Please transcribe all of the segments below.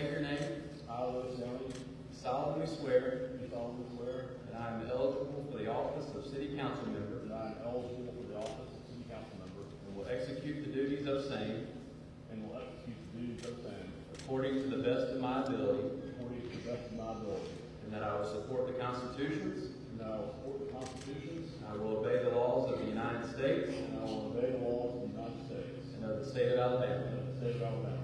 your name, I, Louis Jones, solemnly swear do solemnly swear that I am eligible for the office of city council member that I am eligible for the office of city council member and will execute the duties of same and will execute the duties of same according to the best of my ability, according to the best of my ability, and that I will support the constitutions, and that I will support the constitutions and I will obey the laws of the United States and I will obey the laws of the United States and of the state of and Alabama, of the state of Alabama,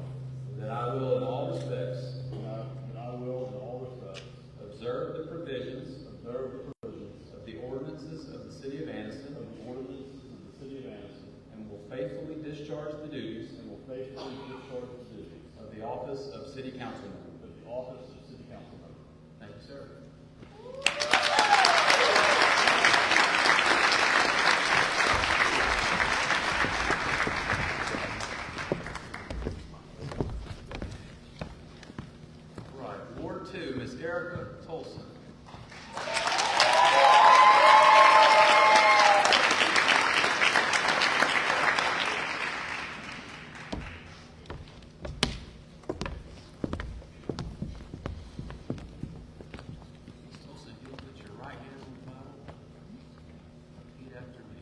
that I will in all respects and I, and I will in all respects observe the provisions observe the provisions of the ordinances of the city of of Anniston the ordinances of the city of Anniston and will faithfully discharge the duties and will faithfully discharge the duties of the office of city council member. of the office of city council member. Thank you, sir. Right, Ward Two, Miss Erica Tolson. Miss Tolson, if you'll put your right hand on the Bible, repeat after me.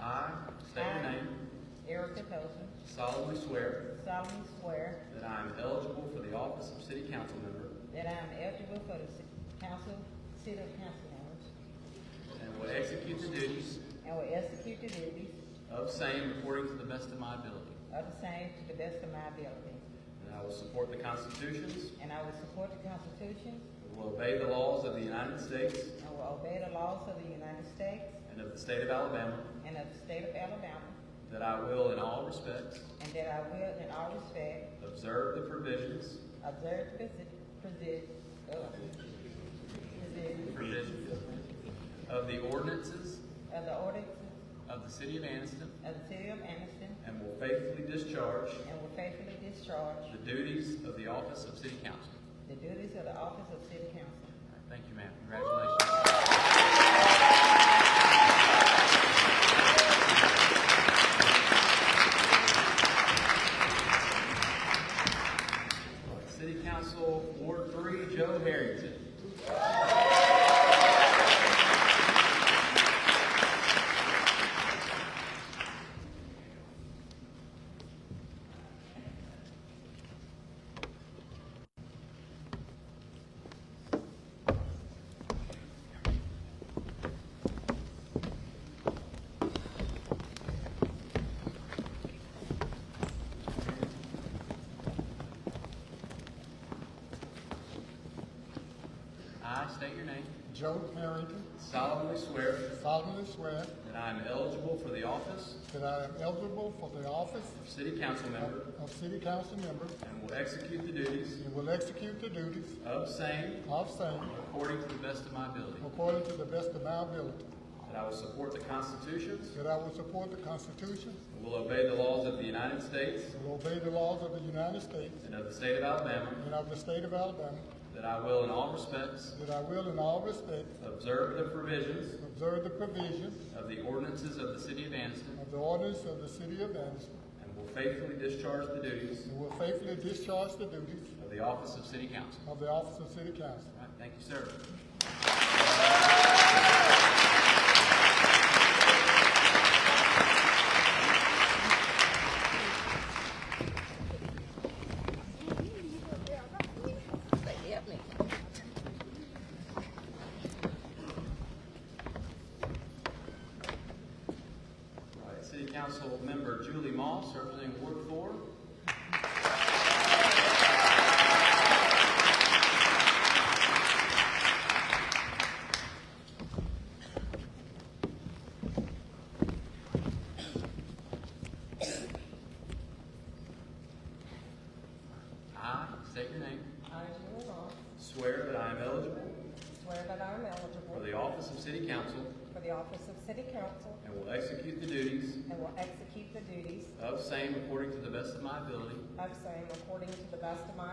I state your I, name, Erica Tolson, solemnly swear solemnly swear that I am eligible for the office of city council member that I am eligible for the ci- council, city council members, and will execute the duties and will execute the duties of same according to the best of my ability. of the same to the best of my ability. And I will support the constitutions, And I will support the Constitution and will obey the laws of the United States and will obey the laws of the United States and of the state of Alabama, and of the state of Alabama, that I will in all respects and that I will in all respect observe the provisions, observe the uh, position, position provisions of the ordinances of the ordinances of the city of Anniston, of the city of Anniston, and will faithfully discharge and will faithfully discharge the duties of the office of city council. the duties of the office of city council. Thank you, ma'am. Congratulations. City Council Ward Three, Joe Harrington. I state your name. Joe Harrington solemnly swear solemnly swear that I am eligible for the office that I am eligible for the office of City Council Member of City Council Member and will execute the duties and will execute the duties of same of same according to the best of my ability. according to the best of my ability, That I will support the constitutions that I will support the Constitution and will obey the laws of the United States and will obey the laws of the United States and of the state of Alabama, and of the state of Alabama, that I will in all respects that I will in all respects observe the provisions observe the provisions of the ordinances of the city of Anniston of the ordinance of the City of Anderson and will faithfully discharge the duties and will faithfully discharge the duties of the office of city council. of the office of City Council. All right, thank you, sir. All right, City Council Member Julie Moss, representing Ward Four. I state your name. I, Julie Law, Swear that I am eligible swear that I am for eligible the office of City Council for the office of city council and will execute the duties and will execute the duties of same according to the best of my ability. of same according to the best of my